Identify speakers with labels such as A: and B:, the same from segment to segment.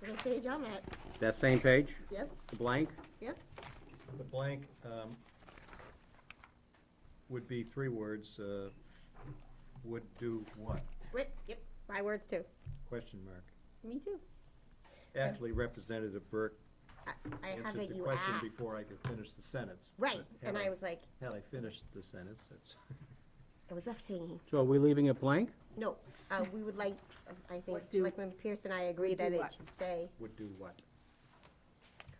A: For the page I'm at,
B: That same page,
A: yes,
B: the blank?
A: yes,
C: The blank um, would be three words, uh, would do what?
A: wait, yep, my words too,
C: Question mark.
A: me too.
C: Actually, Representative Burke
A: I- Uh, I had
C: answered
A: that
C: the
A: you
C: question
A: asked.
C: before I could finish the sentence.
A: Right,
C: But
A: and
C: had
A: I was like,
C: Had I finished the sentence, that's,
A: it was left hanging.
B: So are we leaving it blank?
A: No, uh, we would like, I think,
D: Would do-
A: Selectman Pierce and I agree
D: would
A: that
D: do
A: it
D: what?
A: should say,
C: would do what?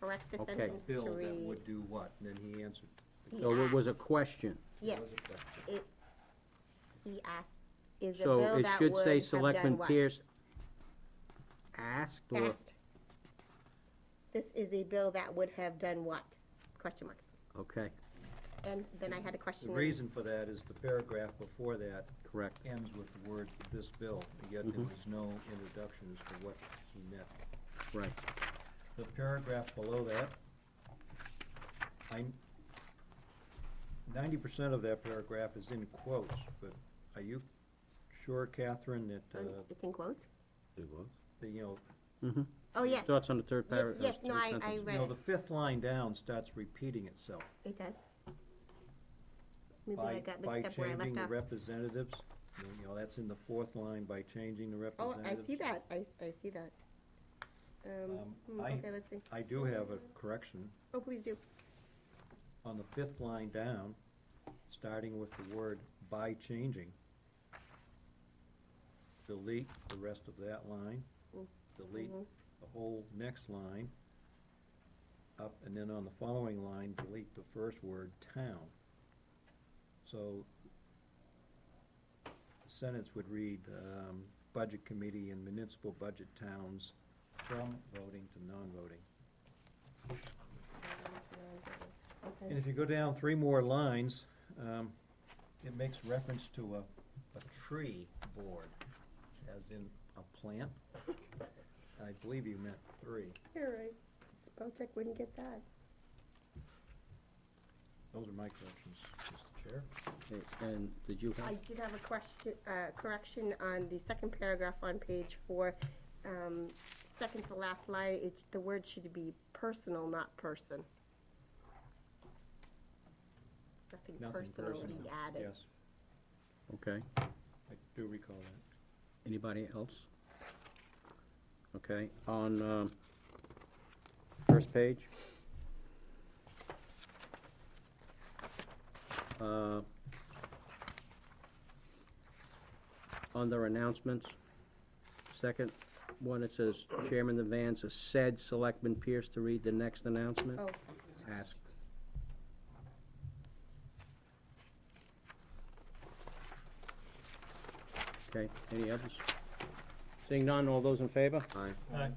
A: correct the
B: Okay.
A: sentence to
C: Bill that
A: read.
C: would do what? And then he answered.
A: he
B: So it was a
A: asked-
B: question.
A: Yes,
C: That was a question.
A: he asked, is a
B: So
A: bill
B: it
A: that
B: should
A: would
B: say
A: have done
B: Selectman
A: what?
B: Pierce asked or?
A: Asked. This is a bill that would have done what? Question mark.
B: Okay,
A: And then I had a question.
C: The reason for that is the paragraph before that
B: correct.
C: ends with the word "this bill," yet there
B: Mhm.
C: was no introduction as to what he meant.
B: Right.
C: The paragraph below that, I, ninety percent of that paragraph is in quotes, but are you sure, Catherine, that, uh,
A: Um, It's in quotes?
E: It was?
C: the, you know,
B: Mhm.
A: Oh, yes,
B: Starts on the third
A: Ye-
B: paragraph.
A: yes, no, I- I
C: you know,
A: Right.
C: the fifth line down starts repeating itself.
A: it does. Maybe
C: By
A: I got mixed up where I
C: By changing
A: left
C: the
A: off.
C: representatives, you know, that's in the fourth line, by changing the
A: Oh, I
C: representatives.
A: see that, I, s- I see that. Um,
C: Um,
A: hmm,
C: I-
A: okay, let's see.
C: I do have a correction.
A: Oh, please do.
C: on the fifth line down, starting with the word "by changing." Delete the rest of that line,
A: Mm.
C: delete
A: Mhm.
C: the whole next line, up, and then on the following line, delete the first word "town." So the sentence would read, um, "Budget Committee and municipal budget towns from voting to non-voting." And
A: Okay.
C: if you go down three more lines, um, it makes reference to a, a tree board, as in a plant. I believe you meant three.
A: All right, spell check wouldn't get that.
C: Those are my corrections, Mr. Chair.
B: Okay, And did you
A: I
B: have,
A: did have a question, uh, correction on the second paragraph on page four. Um, second to last line, it's, the word should be personal, not person. Nothing
C: Nothing
A: personal would be
C: personal.
A: added.
C: Yes,
B: okay,
C: I do recall that.
B: anybody else? Okay, on, um, first page. Uh, Under announcements, second one, it says Chairman Devanza said Selectman Pierce to read the next announcement.
A: Oh,
B: Asked. Okay, any others? Seeing none, all those in favor? Aye.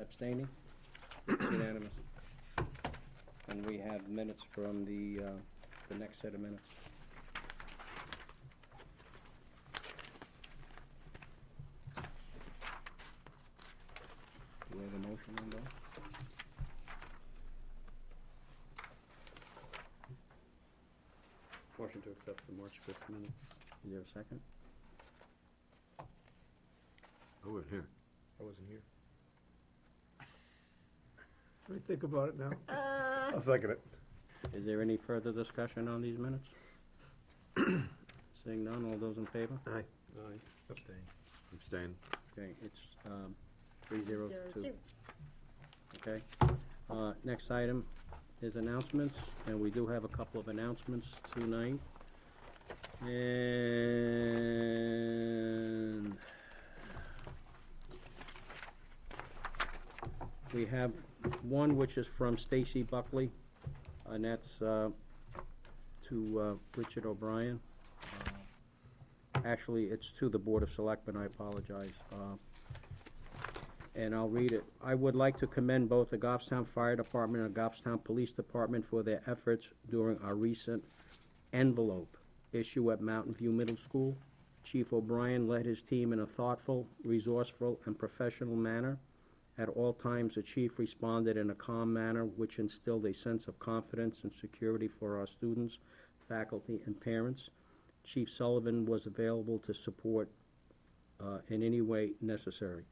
B: Abstaining? Unanimous. And we have minutes from the, uh, the next set of minutes. Do we have a motion on that?
E: Motion to accept the March fifth minutes.
B: Is there a second?
E: I wasn't here.
C: I wasn't here.
E: Let me think about it now.
A: uh,
E: I'll second it.
B: Is there any further discussion on these minutes? Seeing none, all those in favor?
E: Aye.
C: Abstain.
E: Abstain.
B: Okay, it's, um, three zero
A: zero
B: two,
A: two.
B: okay? Uh, next item is announcements, and we do have a couple of announcements tonight. And we have one which is from Stacy Buckley, and that's, uh, to, uh, Richard O'Brien. Uh, Actually, it's to the Board of Selectmen, I apologize. uh, And I'll read it. I would like to commend both the Goffstown Fire Department and Goffstown Police Department for their efforts during our recent envelope issue at Mountain View Middle School. Chief O'Brien led his team in a thoughtful, resourceful, and professional manner. At all times, the chief responded in a calm manner, which instilled a sense of confidence and security for our students, faculty, and parents. Chief Sullivan was available to support uh, in any way necessary.